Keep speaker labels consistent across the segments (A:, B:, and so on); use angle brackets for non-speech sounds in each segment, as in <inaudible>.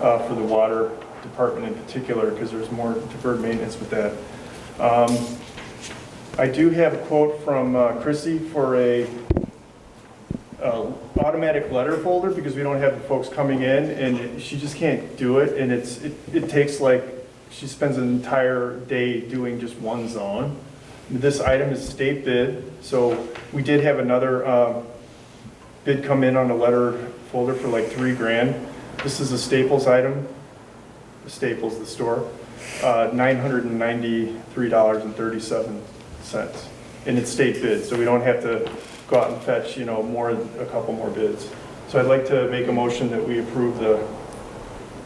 A: uh, for the water department in particular, because there's more deferred maintenance with that. Um, I do have a quote from uh, Chrissy for a uh, automatic letter folder because we don't have the folks coming in and she just can't do it. And it's, it it takes like, she spends an entire day doing just one zone. This item is state bid, so we did have another um, bid come in on a letter folder for like three grand. This is a Staples item, Staples, the store, uh, $993.37. And it's state bid, so we don't have to go out and fetch, you know, more, a couple more bids. So I'd like to make a motion that we approve the,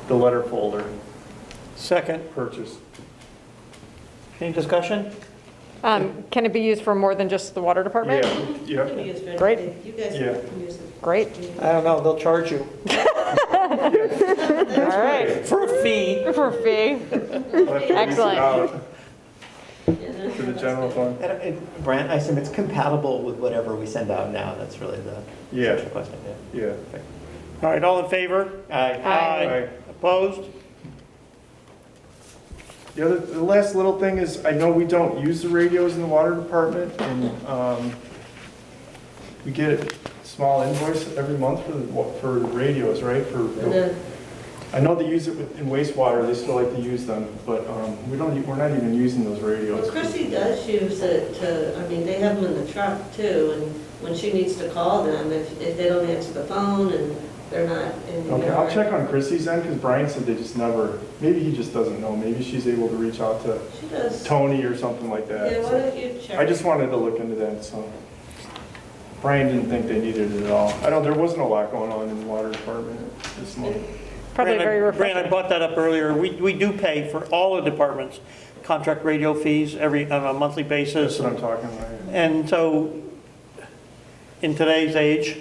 A: the letter folder
B: Second,
A: purchase.
B: any discussion?
C: Um, Can it be used for more than just the water department?
A: Yeah, yeah,
C: Great.
D: You guys
A: Yeah.
D: can use it.
C: Great.
B: I don't know, they'll charge you
C: All right.
B: for a fee.
C: <laughs> For a fee.
A: We'll have to lease it
C: Excellent.
A: out To the general fund,
E: And it- Brent, I assume it's compatible with whatever we send out now, that's really the
A: Yeah.
E: central question, yeah.
A: yeah.
B: All right, all in favor?
E: Aye.
A: Aye.
B: Opposed?
A: The other, the last little thing is, I know we don't use the radios in the water department, and, um, we get a small invoice every month for the, wa- for radios, right?
D: And uh,
A: For,
D: then,
A: I know they use it with- in wastewater, they still like to use them, but, um, we don't, e- we're not even using those
D: well,
A: radios.
D: Chrissy does use it to, I mean, they have them in the truck too, and when she needs to call them, if, if they don't answer the phone and they're not in the
A: Okay, I'll
D: yard.
A: check on Chrissy's end, because Brian said they just never, maybe he just doesn't know, maybe she's able to reach out to
D: She does. Yeah,
A: Tony or something like
D: why
A: that.
D: don't you check?
A: I just wanted to look into that, so. Brian didn't think they needed it at all. I don't, there wasn't a lot going on in the water department this month.
C: Probably
B: Brandon,
C: very
B: Brandon, I
C: refreshing.
B: brought that up earlier. We, we do pay for all the departments, contract radio fees every, on a monthly
A: That's
B: basis.
A: what I'm talking about.
B: And so, in today's age,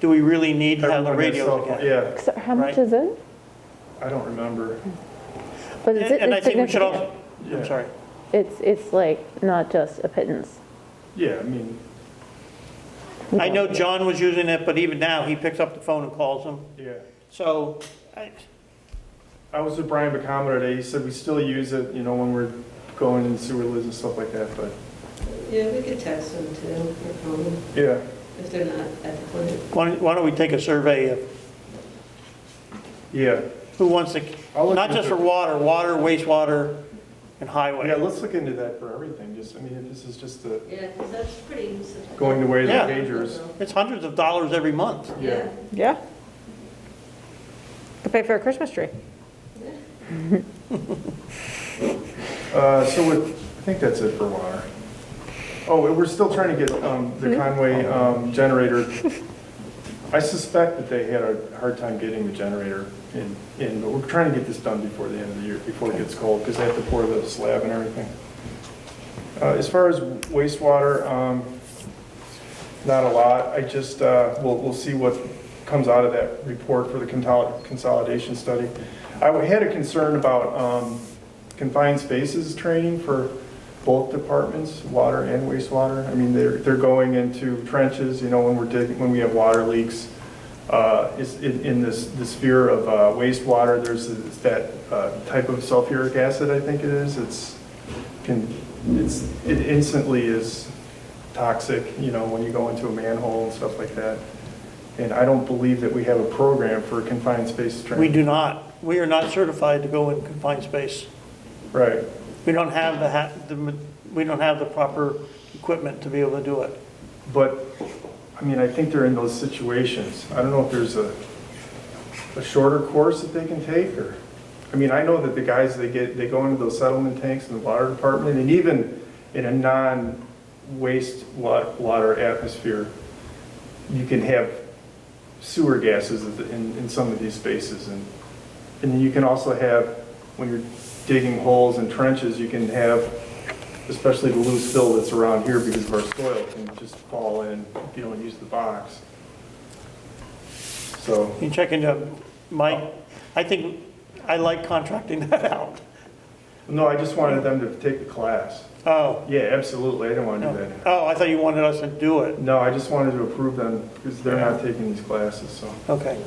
B: do we really need to have the
A: Everyone has cell
B: radios
A: phone-
B: again?
A: Yeah,
F: So how
B: Right.
F: much is it?
A: I don't remember.
F: But it's,
B: And I
F: it's
B: think we should
F: significant.
B: also,
A: Yeah.
B: I'm sorry.
F: It's, it's like not just a pittance.
A: Yeah, I mean,
B: I know John was using it, but even now, he picks up the phone and calls them.
A: yeah.
B: So, I,
A: I was with Brian Bacama today, he said we still use it, you know, when we're going in sewer lids and stuff like that, but,
D: Yeah, we could text them too, or phone them,
A: yeah.
D: if they're not at the clinic.
B: why don't- why don't we take a survey of
A: Yeah,
B: who wants to,
A: I'll look
B: not just
A: into
B: for
A: it.
B: water, water, wastewater, and
A: yeah,
B: highway.
A: let's look into that for everything, just, I mean, if this is just the,
D: Yeah, 'cause that's pretty.
A: going the way of the
B: Yeah.
A: pagers.
B: It's hundreds of dollars every month.
D: Yeah.
C: Yeah. To pay for a Christmas tree.
A: Uh, so it, I think that's it for water. Oh, and we're still trying to get, um, the Conway, um, generator. I suspect that they had a hard time getting the generator in, in, but we're trying to get this done before the end of the year, before it gets cold, because they have to pour the slab and everything. Uh, as far as wastewater, um, not a lot. I just, uh, we'll, we'll see what comes out of that report for the consol- consolidation study. I had a concern about um, confined spaces training for both departments, water and wastewater. I mean, they're, they're going into trenches, you know, when we're digging, when we have water leaks. Uh, Is in in this, the sphere of uh, wastewater, there's this- that uh, type of sulfuric acid, I think it is. It's, can, it's, it instantly is toxic, you know, when you go into a manhole and stuff like that. And I don't believe that we have a program for confined space
B: We
A: training.
B: do not, we are not certified to go in confined space.
A: Right,
B: We don't have the, ha- the ma- we don't have the proper equipment to be able to do it.
A: but, I mean, I think they're in those situations. I don't know if there's a, a shorter course that they can take, or, I mean, I know that the guys, they get, they go into those settlement tanks in the water department, and even in a non-waste wa- water atmosphere, you can have sewer gases in, in some of these spaces, and, and then you can also have, when you're digging holes and trenches, you can have, especially the loose fill that's around here because of our soil, can just fall in if you don't use the box. So.
B: You check into Mike, I think, I like contracting <laughs> that out.
A: No, I just wanted them to take the class.
B: Oh,
A: Yeah, absolutely, I didn't want to do that.
B: oh, I thought you wanted us to do it.
A: No, I just wanted to approve them because they're not taking these classes, so.
B: Okay.